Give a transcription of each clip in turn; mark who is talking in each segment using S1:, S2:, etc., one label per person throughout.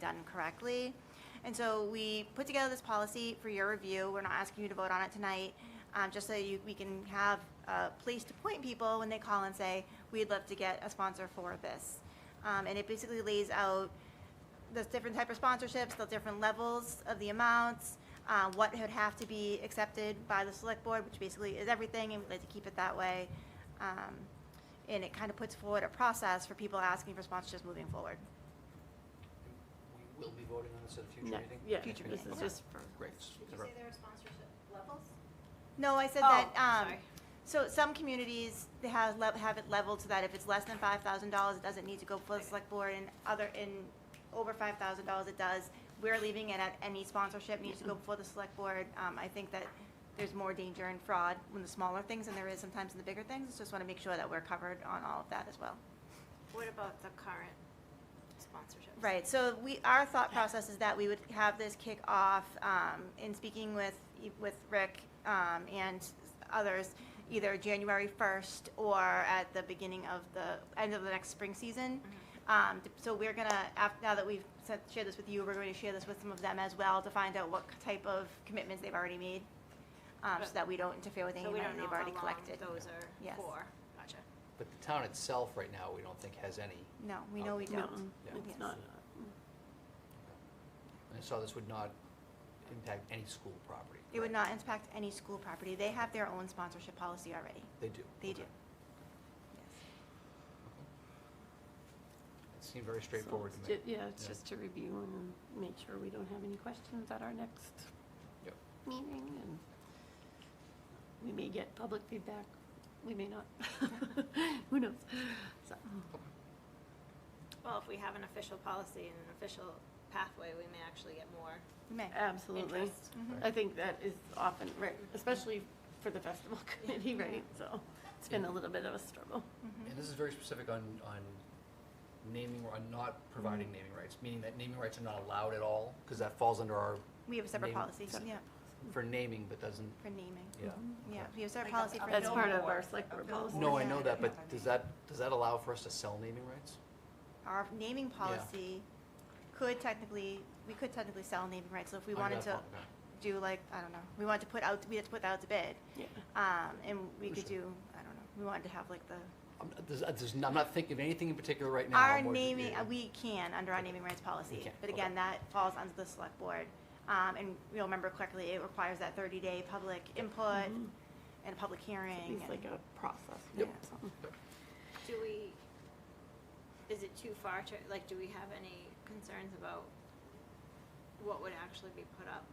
S1: done correctly. And so we put together this policy for your review. We're not asking you to vote on it tonight, um, just so you, we can have a place to point people when they call and say, we'd love to get a sponsor for this. Um, and it basically lays out the different type of sponsorships, the different levels of the amounts, uh, what would have to be accepted by the select board, which basically is everything, and we'd like to keep it that way. Um, and it kind of puts forward a process for people asking for sponsorships moving forward.
S2: We will be voting on this at a future
S3: No,
S2: meeting?
S3: yeah,
S1: Future
S3: this
S1: meeting,
S3: is
S1: yeah.
S3: just for,
S2: Great.
S4: there are sponsorship levels?
S1: No, I said
S4: Oh,
S1: that, um,
S4: sorry.
S1: so some communities, they have, lev- have it leveled so that if it's less than five thousand dollars, it doesn't need to go for the
S4: Okay.
S1: select board, and other, and over five thousand dollars, it does. We're leaving it at any sponsorship needs to go before the select board. Um, I think that there's more danger in fraud in the smaller things than there is sometimes in the bigger things. Just wanna make sure that we're covered on all of that as well.
S4: What about the current sponsorships?
S1: Right, so we, our thought process is that we would have this kick off, um, in speaking with, with Rick, um, and others, either January first or at the beginning of the, end of the next spring season.
S4: Mm-hmm.
S1: Um, d- so we're gonna, after, now that we've said, shared this with you, we're going to share this with some of them as well to find out what type of commitments they've already made, um, so
S4: But-
S1: that we don't interfere with any
S4: So we
S1: money
S4: don't know
S1: they've
S4: how
S1: already
S4: long
S1: collected.
S4: those are
S1: Yes.
S4: for. Gotcha.
S2: But the town itself, right now, we don't think has any.
S1: No, we know we
S2: Okay.
S3: Oh, no,
S1: don't.
S2: Yeah.
S3: it's
S1: Yes.
S3: not.
S2: And so this would not impact any school property.
S1: It would
S2: correct?
S1: not impact any school property. They have their own sponsorship policy already.
S2: They do.
S1: They
S2: Okay.
S1: do.
S2: It seemed very straightforward
S3: So
S2: to
S3: it's
S2: me.
S3: ju- Yeah, it's
S2: Yeah.
S3: just to review and make sure we don't have any questions at our next
S2: Yep.
S3: meeting, and we may get public feedback, we may not, who knows? So,
S4: Well, if we have an official policy and an official pathway, we may actually get more
S1: You
S2: Uh,
S1: may.
S3: Absolutely.
S4: interest.
S1: Mhm.
S3: I think that is often, right, especially for the festival committee, right? So it's been a little bit of a struggle.
S1: Mhm.
S2: And this is very specific on, on naming, or on not
S1: Mm-hmm.
S2: providing naming rights, meaning that naming rights are not allowed at all, because that falls under our,
S1: We have a separate
S2: Name-
S1: policy,
S2: Sep-
S1: yeah,
S2: for naming, but doesn't,
S1: for naming.
S2: yeah.
S1: Mm-hmm. Yeah,
S2: okay. uh,
S1: we have a separate
S4: Like a-
S1: policy for.
S4: a
S3: That's
S1: naming.
S3: part of our select board policy.
S2: No, I
S1: Yeah.
S2: know that, but does that, does that allow for us to sell naming rights?
S1: Our naming policy could technically, we could technically sell naming rights, so if we
S2: Under
S1: wanted to
S2: that part, okay.
S1: do like, I don't know, we wanted to put out, we had to put that out to bid.
S3: Yeah.
S1: Um, and we
S2: For
S1: could
S2: sure.
S1: do, I don't know, we wanted to have like the,
S2: I'm, there's, uh, there's, I'm not thinking of anything in particular right now.
S1: our
S2: I'm more just-
S1: naming,
S2: yeah.
S1: uh, we can under our
S2: Okay.
S1: naming rights policy.
S2: can,
S1: But
S2: okay.
S1: again, that falls under the select board. Um, and you'll remember correctly, it requires that thirty-day public input
S3: Mhm.
S2: Mm-hmm.
S1: and a public
S3: So
S1: hearing.
S3: It's
S1: and-
S3: like a process.
S1: Yep.
S3: yeah, something.
S4: Do we, is it too far to, like, do we have any concerns about what would actually be put up?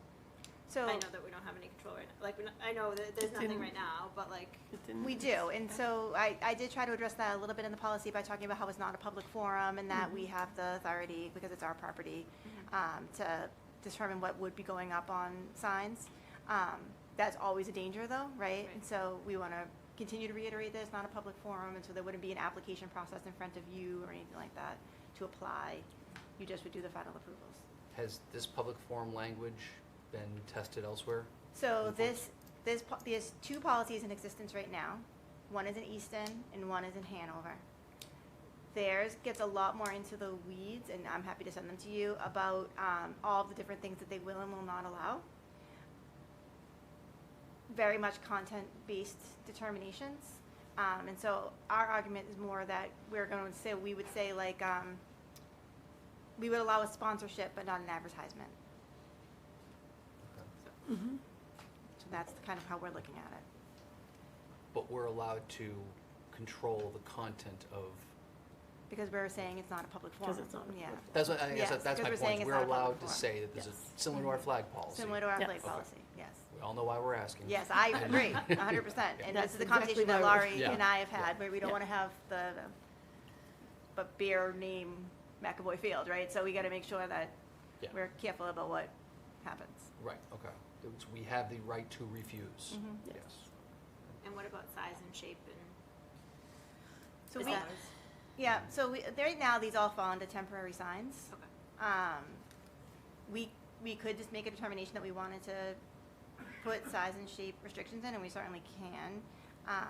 S1: So.
S4: I know that we don't have any control right now, like, we're not- I know that there's
S3: It's
S4: nothing
S3: in-
S4: right now, but like,
S3: It's in-
S1: We do, and
S3: Yeah.
S1: so I, I did try to address that a little bit in the policy by talking about how it's not a public forum and that
S4: Mm-hmm.
S1: we have the authority, because it's our property,
S4: Uh,
S1: um, to determine what would be going up on signs. Um, that's always a danger though, right? And
S4: Right.
S1: so we wanna continue to reiterate that it's not a public forum, and so there wouldn't be an application process in front of you or anything like that to apply. You just would do the final approvals.
S2: Has this public forum language been tested elsewhere?
S1: So
S2: Unfortunate-
S1: this, this, po- there's two policies in existence right now. One is in Easton and one is in Hanover. Theirs gets a lot more into the weeds, and I'm happy to send them to you, about um, all of the different things that they will and will not allow. Very much content-based determinations. Um, And so our argument is more that we're going to say, we would say like, um, we would allow a sponsorship but not an advertisement.
S2: Okay.
S3: Mhm.
S1: So that's kind of how we're looking at it.
S2: But we're allowed to control the content of,
S1: Because we were saying it's not a public forum.
S3: Because it's not a
S1: Yeah.
S3: public-
S2: that's, what- I guess
S1: Yes,
S2: that's my
S1: because we're saying
S2: point.
S1: it's
S2: We're
S1: not a public
S2: allowed to
S1: forum.
S2: say that this is
S1: Yes.
S2: similar to our flag policy.
S1: Similar to our
S3: Yes.
S1: flag
S3: Okay.
S1: policy, yes.
S2: We all know why we're asking.
S1: Yes, I agree, a hundred percent. And this is the conversation that Laurie
S2: Yeah.
S1: and I have had,
S2: Yeah.
S1: where we don't
S3: Yeah.
S1: want to have the, but beer name McAvoy Field, right? So we got to make sure that
S2: Yeah.
S1: we're careful about what happens.
S2: Right, okay. It's- We have the right to refuse.
S1: Mhm.
S3: Yes.
S2: Yes.
S4: and what about size and shape and?
S1: So
S4: is
S1: we,
S4: that-
S1: yeah, so we, right now, these all fall into temporary signs.
S4: Okay.
S1: um, we, we could just make a determination that we wanted to put size and shape restrictions in, and we certainly can. Um,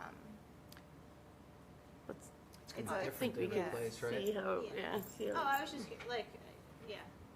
S3: Let's-
S2: It's gonna
S1: It's
S2: be
S1: a- I
S3: I
S2: different
S3: think we
S2: in every
S3: can
S2: place,
S3: see
S2: right?
S3: how,
S4: Yeah.
S3: yeah, see
S4: Oh, I
S3: how.
S4: was just, cu- like,